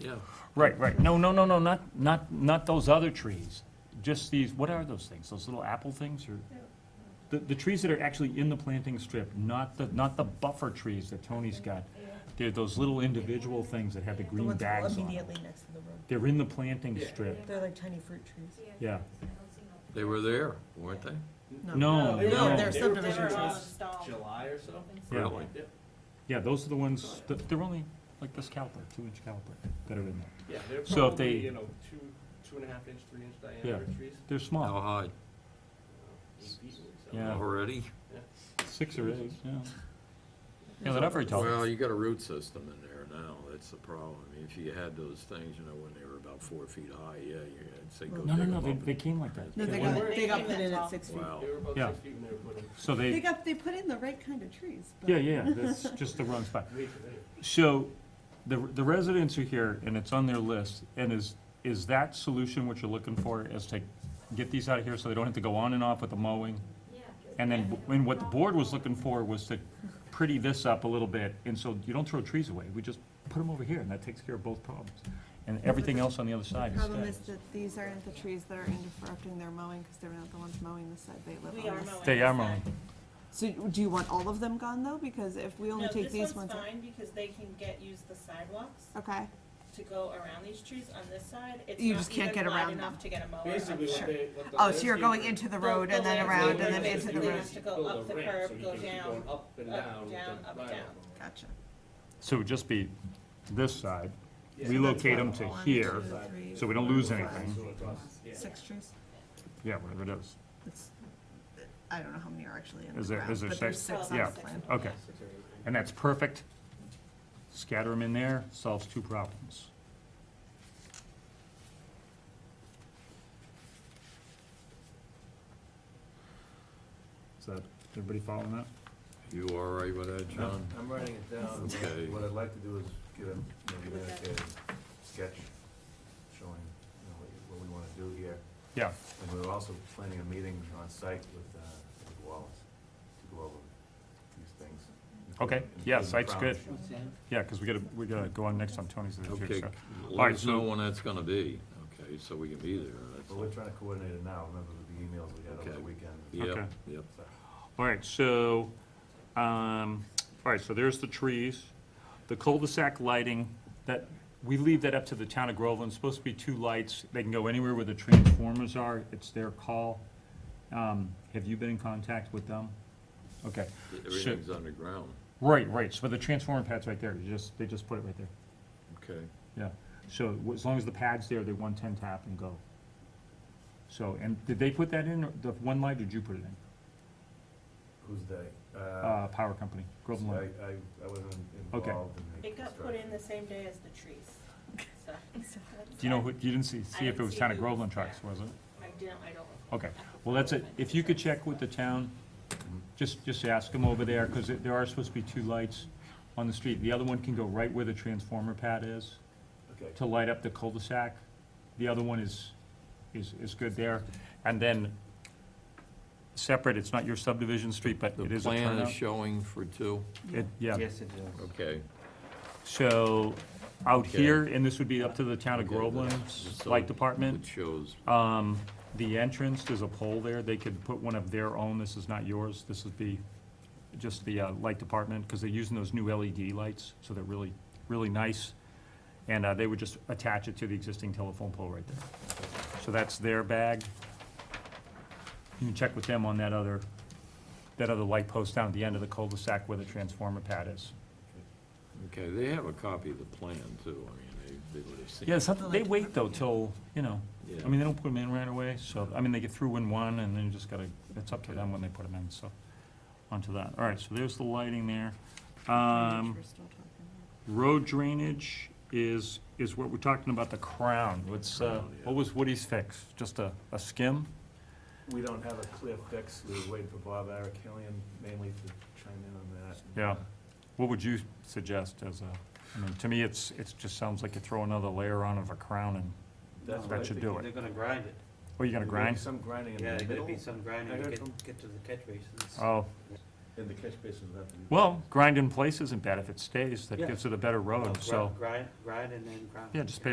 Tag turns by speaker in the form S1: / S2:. S1: Yeah.
S2: Right, right. No, no, no, no, not, not, not those other trees. Just these, what are those things? Those little apple things or? The, the trees that are actually in the planting strip, not the, not the buffer trees that Tony's got. They're those little individual things that have the
S3: The
S2: green
S3: ones
S2: bags on them.
S3: immediately next to the road.
S2: They're in the planting
S1: Yeah.
S2: strip,
S3: They're like tiny fruit trees.
S2: yeah.
S1: They were there, weren't they?
S2: No,
S4: they were-
S3: they're
S2: no.
S4: they were
S3: subdivision
S4: there
S3: trees.
S4: last July or so?
S2: Yeah.
S1: Really?
S4: Yeah,
S2: Yeah, those are the ones, that- they're only like this caliper, two-inch caliper that are in there.
S4: yeah, they're
S2: So if
S4: probably,
S2: they-
S4: you know, two, two and a half inch, three inch diameter trees.
S2: They're
S1: How
S2: small,
S1: high?
S4: Uh, eight feet, so-
S2: Yeah.
S1: Already? Oh.
S2: six or eight, yeah. Yeah, they're not very tall.
S1: Well, you got a root system in there now, that's the problem. I mean, If you had those things, you know, when they were about four feet high, yeah, you'd say go dig
S2: No, no,
S1: them
S2: no,
S1: up.
S2: they, they came like that.
S3: No, they
S2: They
S3: got,
S2: weren't-
S3: they got put in at six feet.
S1: Wow.
S4: They were about
S2: Yeah.
S4: six feet when they were put in,
S2: So
S3: They
S2: they,
S3: got, they put in the right kind of trees, but.
S2: yeah, yeah, that's just the wrong spot.
S4: way too many.
S2: So, the, the residents are here, and it's on their list, and is, is that solution what you're looking for, is to get these out of here so they don't have to go on and off with the mowing? And then, and what the board was looking for was to pretty this up a little bit, and so you don't throw trees away, we just put them over here, and that takes care of both problems. And everything else on the other
S5: The
S2: side is
S5: problem is
S2: stays.
S5: that these aren't the trees that are interrupting their mowing, because they're not the ones mowing the side they live on.
S6: We are
S5: this-
S6: mowing.
S2: They are
S6: this
S2: mowing.
S6: side.
S5: So do you want all of them gone, though? Because if we only
S6: No,
S5: take
S6: this
S5: these
S6: one's
S5: ones. out-
S6: fine because they can get, use the sidewalks
S5: Okay,
S6: to go around these trees on this side. It's
S5: You
S6: not
S5: just can't
S6: even
S5: get
S6: wide
S5: around
S6: enough
S5: them.
S6: to get a mower.
S4: Basically,
S5: Sure.
S4: what they, what the.
S5: oh, so you're going
S4: landscaper-
S5: into the
S6: The-
S5: road
S6: the
S5: and then
S6: landscaper
S5: around and then
S6: is
S5: into the
S6: gonna
S5: road?
S6: have to go
S4: Build a
S6: up the
S4: ramp
S6: curb,
S4: so you
S6: go
S4: can keep
S6: down,
S4: going Up and
S6: up,
S4: down. with
S6: down,
S4: the
S6: up,
S4: vinyl.
S6: down.
S5: Gotcha.
S2: So it would just be this side,
S4: Yeah.
S2: relocate them to
S5: One,
S2: here,
S5: two, three,
S2: so we don't lose
S5: four,
S2: anything,
S4: So across, yeah.
S5: Six trees?
S2: yeah, whatever it is,
S5: It's, I don't know how many are actually in
S2: Is
S5: the
S2: there-
S5: ground,
S2: is there
S5: but there's
S2: six?
S5: six
S6: Well,
S5: on the
S6: that's
S5: plan.
S6: six.
S2: okay.
S4: Six or eight.
S2: And that's perfect. Scatter them in there, solves two problems. Is that, everybody following that?
S1: You all right with that, John?
S7: I'm writing it down.
S1: Okay.
S7: What I'd like to do is get a, maybe like a sketch showing, you know, what you- what we wanna do here.
S2: Yeah,
S7: And we're also planning a meeting on site with, uh, with Wallace to go over these things.
S2: Okay, yeah,
S7: Including
S2: site's
S7: ground
S2: good.
S7: issues.
S2: yeah, because we gotta, we gotta go on next on Tony's there too,
S1: Okay,
S2: so.
S1: let us
S2: so-
S1: know when that's gonna be, okay, so we can be there. that's
S7: But we're trying to coordinate it now, remember with the emails we had over
S1: Okay.
S7: the weekend.
S1: all. Yep,
S2: Okay.
S1: yep.
S7: So,
S2: All right, so, um, all right, so there's the trees, the cul-de-sac lighting, that, we leave that up to the town of Groveland, It's supposed to be two lights, they can go anywhere where the transformers are, it's their call. Um, have you been in contact with them? Okay,
S1: Everything's underground,
S2: right, right, so the transformer pad's right there, you just, they just put it right there,
S1: okay?
S2: yeah. So w- as long as the pad's there, they one-ten tap and go. So, and did they put that in, or the one light, or did you put it in?
S7: Who's they? Uh,
S2: Uh, power company,
S7: see,
S2: Groveland
S7: I,
S2: Light.
S7: I, I wasn't
S2: Okay.
S7: involved in the
S6: It got put in
S7: construction.
S6: the same day as the trees. So-
S2: Do you know who, you didn't see, see if it
S6: didn't
S2: was
S6: see
S2: town of
S6: who-
S2: Groveland trucks, was it?
S6: I don't, I don't.
S2: Okay, well, that's it, if you could check with the town, just, just ask them over there, because there are supposed to be two lights on the street. The other one can go right where the transformer pad is,
S7: Okay.
S2: to light up the cul-de-sac. The other one is, is, is good there, and then, separate, it's not your subdivision street, but
S1: The
S2: it is a
S1: plan is
S2: turnout.
S1: showing for two,
S2: It- Yeah,
S4: Yes, it does.
S1: okay.
S2: so, out
S1: Okay.
S2: here, and this would be up to the town of
S1: Okay,
S2: Groveland's
S1: so
S2: light department.
S1: It shows,
S2: Um, the entrance, there's a pole there, they could put one of their own, this is not yours, this would be just the, uh, light department, because they're using those new LED lights, so they're really, really nice. And, uh, they would just attach it to the existing telephone pole right there. So that's their bag. You can check with them on that other, that other light post down at the end of the cul-de-sac where the transformer pad is.
S1: okay, they have a copy of the plan too, I mean, they, they would have seen.
S2: Yeah, something, they wait though till, you know,
S1: Yeah.
S2: I mean, they don't put them in right away, so, I mean, they get through in one, and then you just gotta, it's up to them when they put them in, so, onto that. All right, so there's the lighting there. Um,
S5: We're still talking about.
S2: road drainage is, is what we're talking about, the crown. What's, uh,
S1: Crown, yeah.
S2: what was Woody's fix? Just a, a skim?
S7: We don't have a clear fix, we were waiting for Bob Arakalian mainly to chime in on that.
S2: Yeah. What would you suggest as a, I mean, to me, it's, it's just sounds like you throw another layer on of a crown and,
S7: That's
S2: That
S7: what I
S2: should
S7: think.
S2: do it.
S8: They're gonna grind it.
S2: oh, you gonna
S7: There may be
S2: grind?
S7: Some grinding in
S8: Yeah,
S7: the
S8: there's gonna
S7: middle.
S8: be some grinding
S7: I
S8: to
S7: heard
S8: get,
S7: from-
S8: get to the catch basins.
S2: Oh,
S7: And the catch basin would have to be.
S2: Well, grind in place isn't bad if it stays, that
S4: Yeah.
S7: oh,
S2: gives it a better road, so,
S4: Grind, grind and then grind.
S2: yeah, just pave